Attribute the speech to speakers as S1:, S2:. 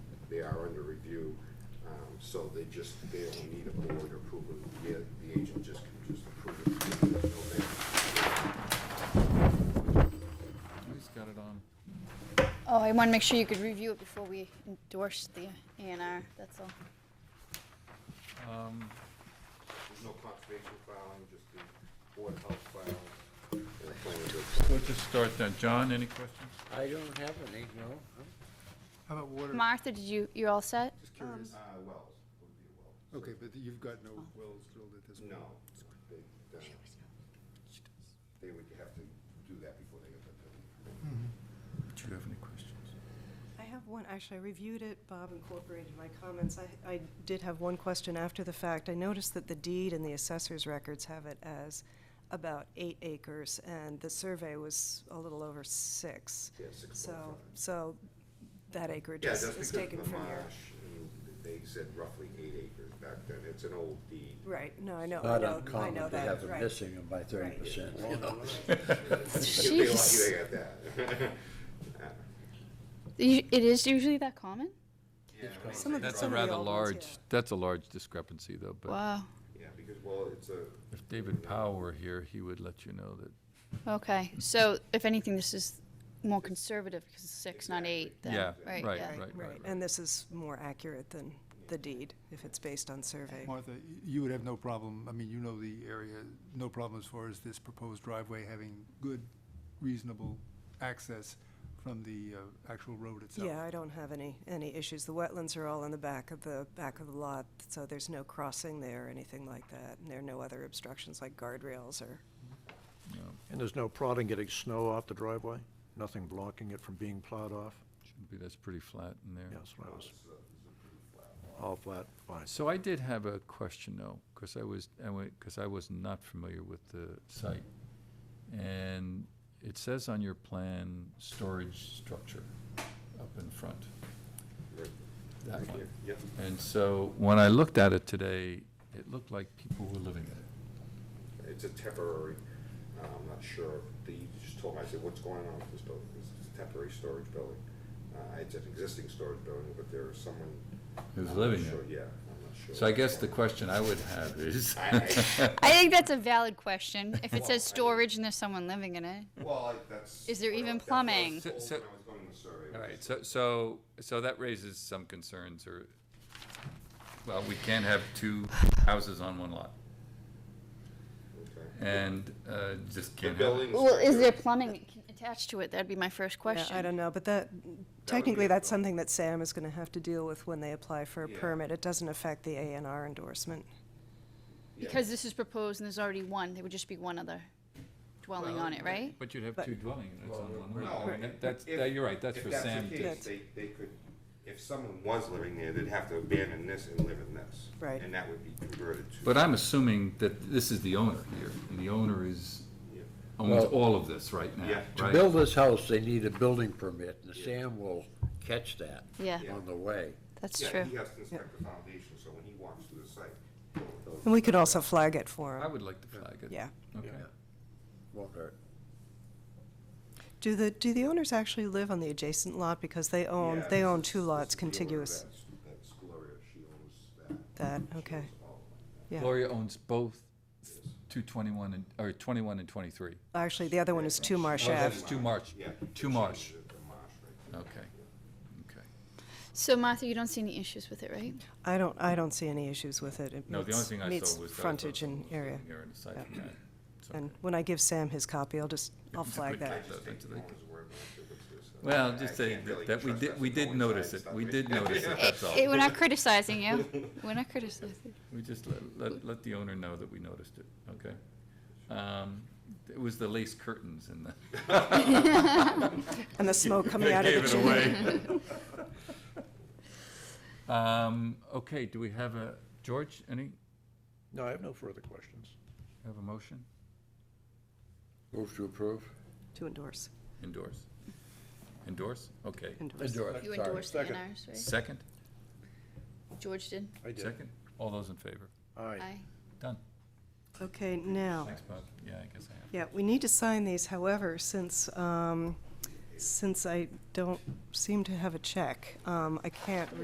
S1: they are under review. Um, So they just, they don't need a board approval, the, the agent just can just approve it. There's no vacancy.
S2: He's got it on.
S3: Oh, I want to make sure you could review it before we endorse the A and R, that's all.
S2: Um,
S1: There's no conservation filing, just the board of health filing. and the planning board
S2: we'll just start then. John, any questions?
S4: I don't have any, no.
S5: How about water?
S3: Martha, did you, you all set?
S5: Just curious.
S1: filing. Uh, Wells would be Wells.
S5: Okay, but you've got no wells drilled at this point?
S1: No, they, uh, they would have to do that before they get the building.
S2: Do you have any questions?
S6: I have one, actually, I reviewed it, Bob incorporated my comments. I, I did have one question after the fact. I noticed that the deed and the assessor's records have it as about eight acres, and the survey was a little over six.
S1: Yeah, six point
S6: So,
S1: five.
S6: so that acreage
S1: Yeah,
S6: is
S1: that's because
S6: is
S1: of
S6: taken
S1: the
S6: from here.
S1: marsh, and they said roughly eight acres back then, it's an old deed.
S6: Right, no, I know,
S4: Not
S6: I know, I know
S4: uncommon to
S6: that,
S4: have
S6: right.
S4: them missing them by thirty percent.
S1: If they
S3: Jeez.
S1: lucky, they got that.
S3: You- It is usually that common?
S6: Some of,
S2: That's a
S6: some of the
S2: rather
S6: old ones, yeah.
S2: large, that's a large discrepancy though, but
S3: Wow,
S1: Yeah, because, well, it's a,
S2: if David Powell were here, he would let you know that,
S3: okay, so if anything, this is more conservative because it's six, not eight, then,
S2: yeah,
S3: right,
S2: right,
S3: yeah.
S2: right, right.
S6: Right, and this is more accurate than the deed, if it's based on survey.
S5: Martha, y- you would have no problem, I mean, you know the area, no problem as far as this proposed driveway having good, reasonable access from the uh, actual road itself?
S6: Yeah, I don't have any, any issues. The wetlands are all in the back of the, back of the lot, so there's no crossing there or anything like that. And there are no other obstructions like guardrails or,
S7: And there's no prodding getting snow off the driveway? Nothing blocking it from being plowed off?
S2: Should be, that's pretty flat in there.
S7: Yeah, that's what I was. All flat, fine.
S2: So I did have a question though, because I was, I went, because I was not familiar with the site. And it says on your plan, storage structure up in front. That one.
S1: yeah,
S2: And so when I looked at it today, it looked like people were living in it.
S1: it's a temporary, uh, I'm not sure, the, you just told me, I said, what's going on with this building? It's a temporary storage building. Uh, it's an existing storage building, but there's someone.
S2: Who's
S1: I'm not
S2: living in
S1: sure,
S2: it.
S1: Yeah, I'm not sure.
S2: So I guess the question I would have is,
S1: I-
S3: I think that's a valid question.
S1: Well,
S3: If it
S1: I mean-
S3: says storage and there's someone living in it,
S1: Well, I- that's.
S3: Is there
S1: what I-
S3: even
S1: that's what I was
S3: plumbing?
S1: told
S2: So- so-
S1: when I was going to the survey.
S2: all right, so, so, so that raises some concerns or, well, we can't have two houses on one lot.
S1: Okay.
S2: And, uh, just
S1: The
S2: can't have. it.
S1: building.
S3: well, is
S1: inspector-
S3: there plumbing attached to it? That'd be my first
S6: Yeah,
S3: question.
S6: I don't know, but that,
S1: be
S6: technically,
S1: a
S6: that's
S1: problem.
S6: something that Sam is gonna have to deal with when they apply for a
S1: Yeah.
S6: permit. It doesn't affect the A and R endorsement.
S1: Yeah.
S3: Because this is proposed and there's already one, there would just be one other dwelling on it, right?
S2: But you'd have
S6: But-
S2: two dwelling units on one
S1: No,
S2: lot. I mean,
S1: if-
S2: that- That's,
S1: if-
S2: that- you're right, that's
S1: if
S2: for Sam.
S1: the
S2: to-
S1: case, They, they could, if someone was living there, they'd have to abandon this and live in this.
S6: Right.
S1: And that would be converted to.
S2: But I'm assuming that this is the owner here, and the owner is,
S1: Yeah.
S2: owns
S4: Well-
S2: all of this right now,
S1: Yeah.
S4: To
S2: right?
S4: build this house, they need a building permit, and Sam will catch that
S3: Yeah,
S1: Yeah.
S4: on the way.
S3: that's
S1: Yeah,
S3: true.
S1: he has to inspect the foundation, so when he walks through the site. he'll-
S6: And we could also flag it for
S2: I
S6: him,
S2: would like to flag it.
S6: yeah.
S2: Okay.
S4: Won't hurt.
S6: Do the, do the owners actually live on the adjacent lot? Because they own,
S1: Yeah,
S6: they
S1: this
S6: own
S1: is-
S6: two
S1: this
S6: lots
S1: is the owner of
S6: contiguous.
S1: that's- That's Gloria, she owns that.
S6: That,
S1: She
S6: okay,
S1: owns all of
S6: yeah.
S2: Gloria owns both two twenty-one and, or twenty-one and twenty-three.
S6: Actually, the other one is Two Marsh
S2: Oh,
S6: Ave.
S2: that's too March,
S1: that. Yeah. she
S2: too
S1: owns
S2: March,
S1: The the marsh right there.
S2: okay, okay.
S3: So Martha, you don't see any issues with it, right?
S6: I don't, I don't see any issues with it. It
S2: No, the only
S6: meets-
S2: thing I
S6: meets
S2: saw was. that I
S6: frontage
S2: thought
S6: and
S2: someone was
S6: area.
S2: living Here and aside from that. it's okay.
S6: And when I give Sam his copy, I'll just, I'll
S2: Just
S6: flag
S2: put
S6: that.
S2: that-
S1: Just
S2: that-
S1: take the
S2: that-
S1: owner's word when I took it to her, so
S2: Well,
S1: I- I
S2: just saying
S1: can't really
S2: that, that we
S1: trust
S2: did,
S1: us
S2: we
S1: to
S2: did
S1: coincide
S2: notice it,
S1: stuff
S2: we
S1: with-
S2: did notice it, that's all.
S3: Eh, We're not criticizing you. We're not criticizing.
S2: We just let, let, let the owner know that we noticed it, okay? Um, it was the lace curtains and the.
S6: And the smoke coming out of the chimney.
S2: Um, okay, do we have a, George, any,
S7: No, I have no further questions.
S2: have a motion?
S4: Move to approve?
S6: To endorse,
S2: Endorse. Endorse, okay.
S6: endorse.
S4: Endorse,
S3: You
S4: sorry.
S3: endorsed the
S7: Second.
S3: NRs, right?
S2: Second,
S3: George did.
S7: I did.
S2: second, all those in favor?
S7: Aye.
S3: Aye.
S2: Done.
S6: Okay, now,
S2: Thanks, Bob, yeah, I guess I have.
S6: yeah, we need to sign these, however, since, um, since I don't seem to have a check, um, I can't